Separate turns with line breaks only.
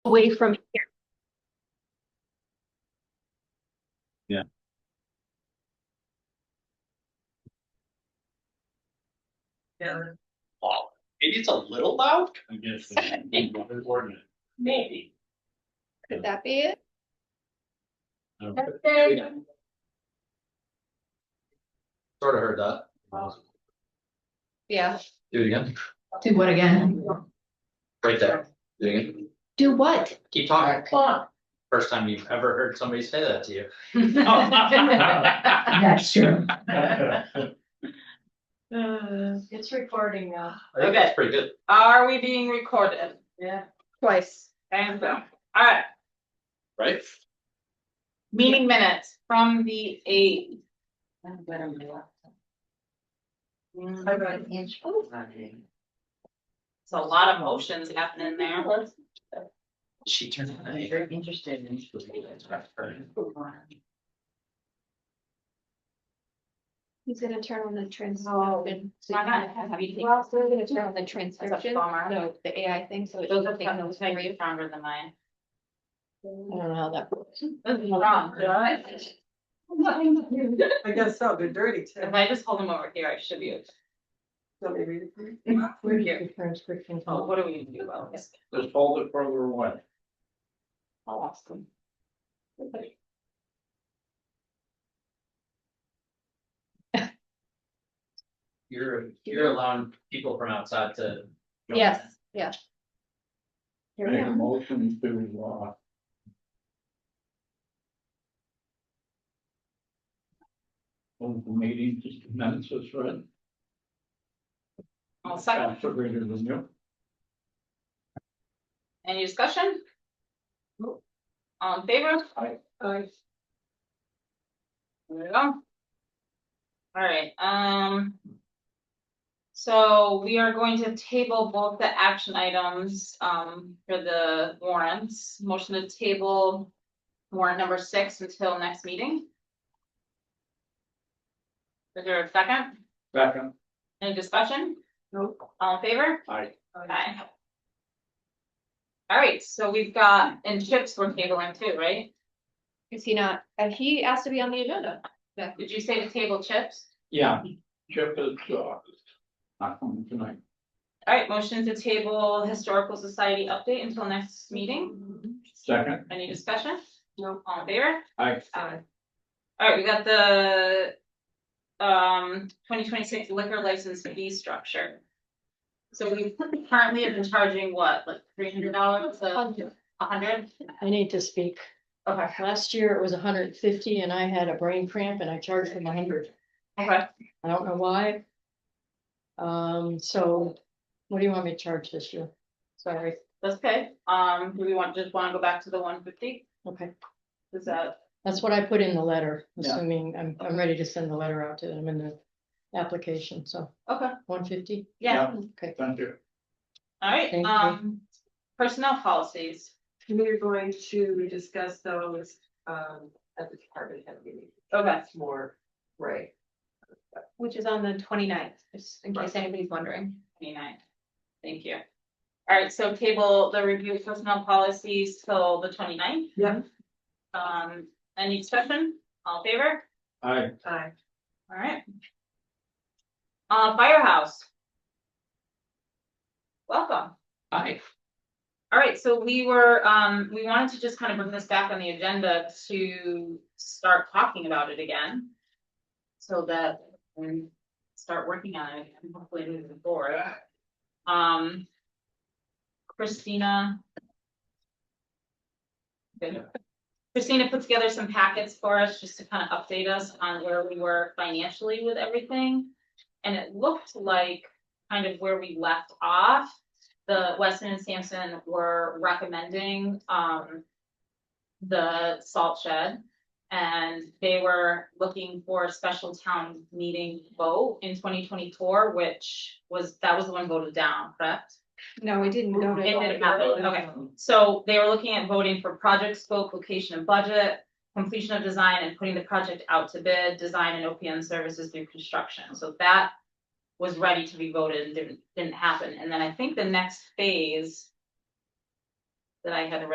away from here.
Yeah.
Yeah.
Wow, maybe it's a little loud?
I guess. it's ordinate.
Maybe.
Could that be it?
No.
Sort of heard that.
Yeah.
Do it again,
Do what again?
right there. Do it again.
Do what?
Keep talking. First time you've ever heard somebody say that to you.
Uh,
That's true.
Uh, It's recording now.
I think that's pretty good.
Are we being recorded? Yeah.
Twice.
And so, alright,
Right?
meeting minutes from the eight. I'm better than that. It's a lot of motions happening there.
She turned. it on.
Very interested in.
He's gonna turn on the transcription.
Oh,
So
why
you
not?
have anything-
Well,
we're gonna turn on the transcription,
bummer.
so the AI thing, so it
Those are
doesn't take
kind of
those three.
way stronger than mine.
I don't know how that works.
This is wrong, right?
I guess so, they're dirty too.
If I just hold them over here, I should be, okay.
Don't they read it for you?
We're here.
Transcription.
Oh, what are we gonna do about this?
Just hold it further away.
I'll ask them.
You're, you're allowing people from outside to. jump in.
Yes, yeah. Here we
Make a
go.
motion to, uh, Hold the meeting just commences, right?
I'll second.
Faster greater than you.
Any discussion? All in favor?
Aye.
Aye. There we go. Alright, um. So we are going to table both the action items, um, for the warrants, motion to table. Warrant number six until next meeting. Is there a second?
Second.
Any discussion?
Nope.
All in favor?
Aye.
Okay. All right, so we've got, and chips we're tabling too, right?
Is he not, and he asked to be on the agenda.
Did you say to table chips?
Yeah, Chip is, uh, not coming tonight.
All right, motion to table historical society update until next meeting.
Second,
Any discussion?
No.
All in favor?
I,
All right, we got the um twenty twenty-six liquor license fee structure. So we currently have been charging what, like three hundred dollars, a hundred?
I need to speak.
Okay,
Last year it was hundred and fifty and I had a brain cramp and I charged him hundred.
okay.
I don't know why. Um, so what do you want me to charge this year? Sorry,
That's okay. Um, do we want, just wanna go back to the one fifty?
okay.
Is that?
That's what I put in the letter,
Yeah.
assuming I'm, I'm ready to send the letter out to them in the application, so
Okay,
one fifty,
yeah,
okay.
thank you.
alright,
Thank you.
um, personnel policies,
We're going to discuss those, um, at the department head meeting.
okay,
That's more, right,
Which is on the 29th, just in case anybody's wondering.
twenty-nine, thank you. Alright, so table the review of personnel policies till the 29th.
Yeah.
Um, any discussion, all in favor,
I,
I,
alright. Uh, firehouse. Welcome.
Hi.
All right, so we were, um, we wanted to just kind of bring this back on the agenda to start talking about it again. So that we start working on it and hopefully moving forward. Um. Christina. Christina put together some packets for us just to kind of update us on where we were financially with everything. And it looked like kind of where we left off the Weston and Sampson were recommending, um. The salt shed, and they were looking for a special town meeting vote in twenty twenty-four, which was, that was the one voted down, correct?
No, we didn't go
It
to.
didn't happen, okay, so they were looking at voting for project scope, location and budget. Completion of design and putting the project out to bid, design and OPM services through construction, so that was ready to be voted and didn't, didn't happen. And then I think the next phase that I had